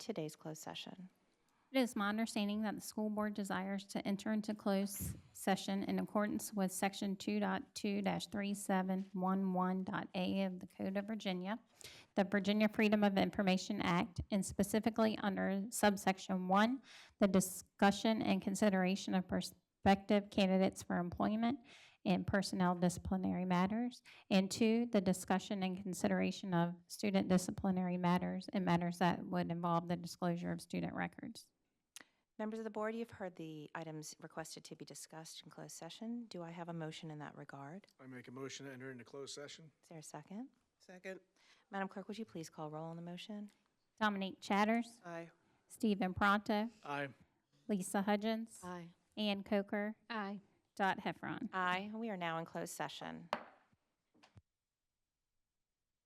today's closed session. It is my understanding that the school board desires to enter into closed session in accordance with section 2.2-3711.a of the Code of Virginia, the Virginia Freedom of Information Act, and specifically under subsection 1, the discussion and consideration of prospective candidates for employment and personnel disciplinary matters, and two, the discussion and consideration of student disciplinary matters and matters that would involve the disclosure of student records. Members of the board, you've heard the items requested to be discussed in closed session. Do I have a motion in that regard? I make a motion to enter into closed session. Is there a second? Second. Madam Clerk, would you please call roll on the motion? Dominique Chatters, Aye. Stephen Pronto, Aye. Lisa Hudgens, Aye. Ann Coker. Aye. Dot Heffron. Aye. We are now in closed session.